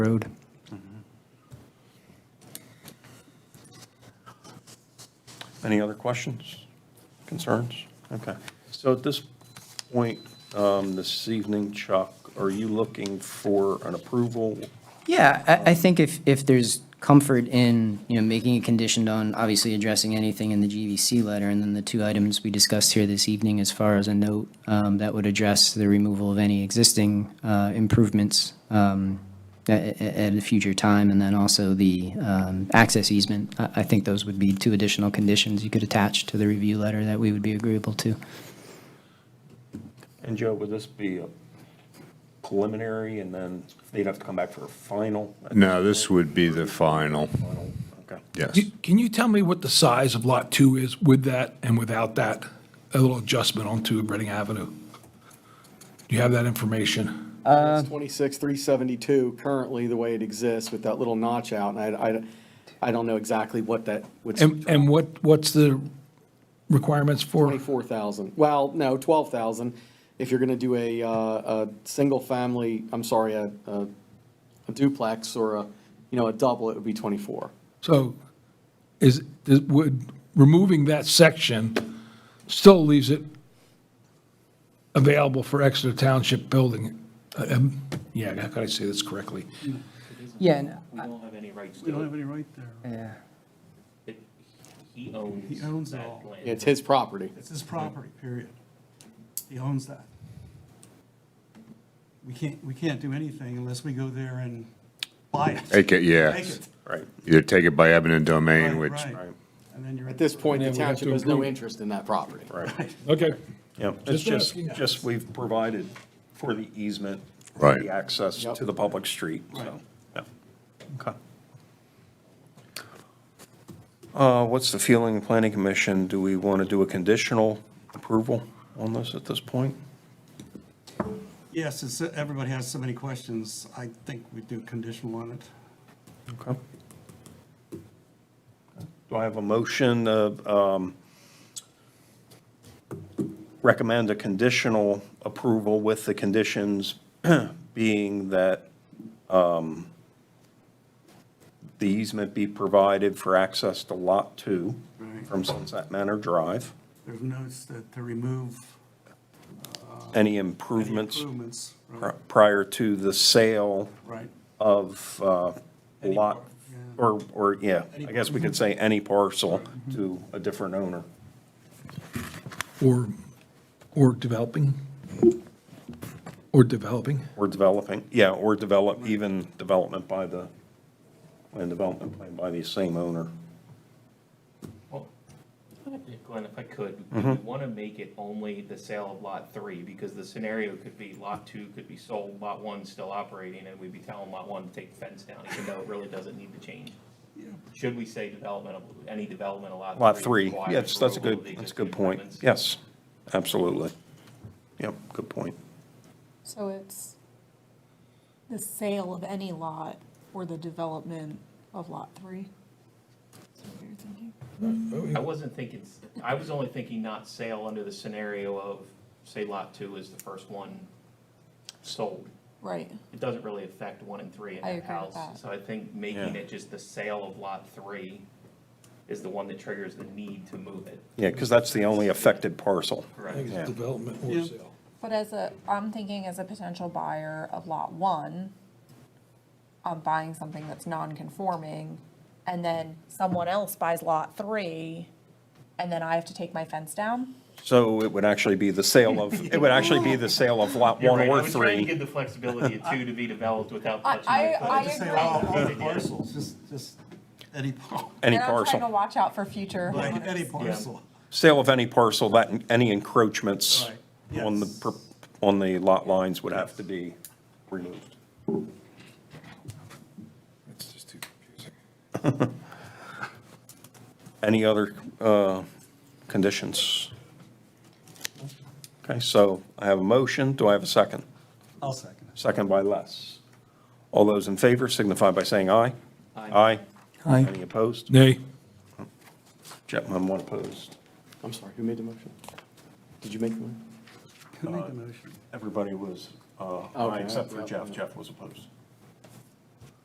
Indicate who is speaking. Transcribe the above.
Speaker 1: road.
Speaker 2: Any other questions, concerns? Okay. So at this point, um, this evening, Chuck, are you looking for an approval?
Speaker 1: Yeah, I, I think if, if there's comfort in, you know, making it conditioned on obviously addressing anything in the GVC letter, and then the two items we discussed here this evening as far as a note, um, that would address the removal of any existing, uh, improvements, um, at, at a future time, and then also the, um, access easement. I, I think those would be two additional conditions you could attach to the review letter that we would be agreeable to.
Speaker 2: And Joe, would this be a preliminary and then they'd have to come back for a final?
Speaker 3: No, this would be the final,
Speaker 2: Final, Okay.
Speaker 3: yes.
Speaker 4: C- Can you tell me what the size of Lot 2 is with that and without that, a little adjustment onto Reading Avenue? Do you have that information?
Speaker 5: It's 26,372 currently, the way it exists with that little notch out, and I, I, I don't know exactly what that would.
Speaker 4: And, and what, what's the requirements for?
Speaker 5: 24,000, well, no, 12,000, if you're gonna do a, uh, a single family, I'm sorry, a, a a duplex or a, you know, a double, it would be 24.
Speaker 4: So is, is- would, removing that section still leaves it available for Exeter Township building? Uh, um, Yeah, how can I say this correctly?
Speaker 1: Yeah, and
Speaker 6: We don't have any rights
Speaker 7: We don't
Speaker 6: to
Speaker 7: have any right there.
Speaker 6: it. He owns.
Speaker 7: He owns it
Speaker 6: that
Speaker 7: all.
Speaker 6: land.
Speaker 5: It's his property.
Speaker 7: It's his property, period. He owns that. We can't, we can't do anything unless we go there and buy it.
Speaker 3: Take it, yeah.
Speaker 7: Take it.
Speaker 2: Right.
Speaker 3: Either take it by eminent domain,
Speaker 7: Right,
Speaker 3: which,
Speaker 7: right. And then you're.
Speaker 5: At this point, the
Speaker 4: And then we have to
Speaker 5: township has no
Speaker 4: improve.
Speaker 5: interest in that property.
Speaker 4: Okay.
Speaker 2: Yeah, it's
Speaker 4: Just
Speaker 2: just,
Speaker 4: asking.
Speaker 2: just we've provided for the easement, for
Speaker 3: Right.
Speaker 2: the access
Speaker 5: Yep.
Speaker 2: to the public street, so, yeah. Okay. Uh, What's the feeling of the planning commission? Do we want to do a conditional approval on this at this point?
Speaker 7: Yes, since everybody has so many questions, I think we do conditional on it.
Speaker 2: Okay. Do I have a motion to um, recommend a conditional approval with the conditions being that um, the easement be provided for access to Lot 2
Speaker 7: Right.
Speaker 2: from Sunset Manor Drive?
Speaker 7: There's notes that to remove
Speaker 2: Any
Speaker 7: any
Speaker 2: improvements
Speaker 7: improvements.
Speaker 2: pri-
Speaker 7: Right,
Speaker 2: prior to the sale
Speaker 7: Right.
Speaker 2: of uh, lot, or, or, yeah, I
Speaker 7: Any
Speaker 2: guess we could say any parcel to a different owner.
Speaker 4: Or, or developing? Or developing?
Speaker 2: Or developing, yeah, or develop, even development by the, and development plan by the same owner.
Speaker 6: Well, Glenn, if I could, we
Speaker 2: Mm-hmm.
Speaker 6: want to make it only the sale of lot three, because the scenario could be lot two could be sold, lot one's still operating, and we'd be telling lot one to take the fence down, even though it really doesn't need to change. Should we say development of, any development of lot?
Speaker 2: Lot three,
Speaker 6: requires
Speaker 2: yes, that's a
Speaker 6: removal of
Speaker 2: good,
Speaker 6: the
Speaker 2: that's a good
Speaker 6: existing
Speaker 2: point.
Speaker 6: improvements?
Speaker 2: Yes, absolutely. Yep, good point.
Speaker 8: So it's the sale of any lot or the development of lot three? Is that what you're thinking?
Speaker 4: Oh,
Speaker 6: I wasn't thinking, I was only thinking not sale under the scenario of, say, lot two is the first one sold.
Speaker 8: Right,
Speaker 6: It doesn't really affect one and three in
Speaker 8: I
Speaker 6: that
Speaker 8: agree with
Speaker 6: house.
Speaker 8: that.
Speaker 6: So I think making
Speaker 2: Yeah.
Speaker 6: it just the sale of lot three is the one that triggers the need to move it.
Speaker 2: Yeah, because that's the only affected parcel.
Speaker 4: I think
Speaker 6: Correct.
Speaker 2: Yeah.
Speaker 4: it's development
Speaker 7: Yeah.
Speaker 4: or sale.
Speaker 8: but as a, I'm thinking as a potential buyer of lot one, I'm buying something that's non-conforming, and then someone else buys lot three, and then I have to take my fence down?
Speaker 2: So it would actually be the sale of, it would actually be the sale of lot
Speaker 6: You're
Speaker 2: one
Speaker 6: right. I
Speaker 2: or
Speaker 6: was trying to
Speaker 2: three.
Speaker 6: give the flexibility of two to be developed without
Speaker 8: I-
Speaker 6: touching
Speaker 8: I-
Speaker 6: it. but
Speaker 8: I
Speaker 6: it's
Speaker 7: Say
Speaker 8: agree.
Speaker 7: all
Speaker 6: developed in
Speaker 7: all
Speaker 6: it.
Speaker 7: parcels, just, just any, par-
Speaker 2: Any
Speaker 8: And I'm trying to
Speaker 2: parcel,
Speaker 8: watch out for future
Speaker 7: like, any
Speaker 8: homeowners.
Speaker 7: parcel.
Speaker 2: sale of any parcel, that, any encroachments
Speaker 7: Right,
Speaker 2: on the,
Speaker 7: yes.
Speaker 2: per- on the lot lines would have to be removed.
Speaker 3: It's just too confusing.
Speaker 2: Any other uh, conditions? Okay, so I have a motion. Do I have a second?
Speaker 7: I'll second it.
Speaker 2: Second by Les. All those in favor signify by saying aye.
Speaker 6: Aye.
Speaker 2: Aye. Any opposed?
Speaker 4: Nay.
Speaker 2: Chapman, one opposed.
Speaker 5: I'm sorry, who made the motion? Did you make the motion?
Speaker 7: Who made the motion?
Speaker 2: Everybody was, uh,
Speaker 5: Okay.
Speaker 2: aye, except for Jeff. Jeff was opposed.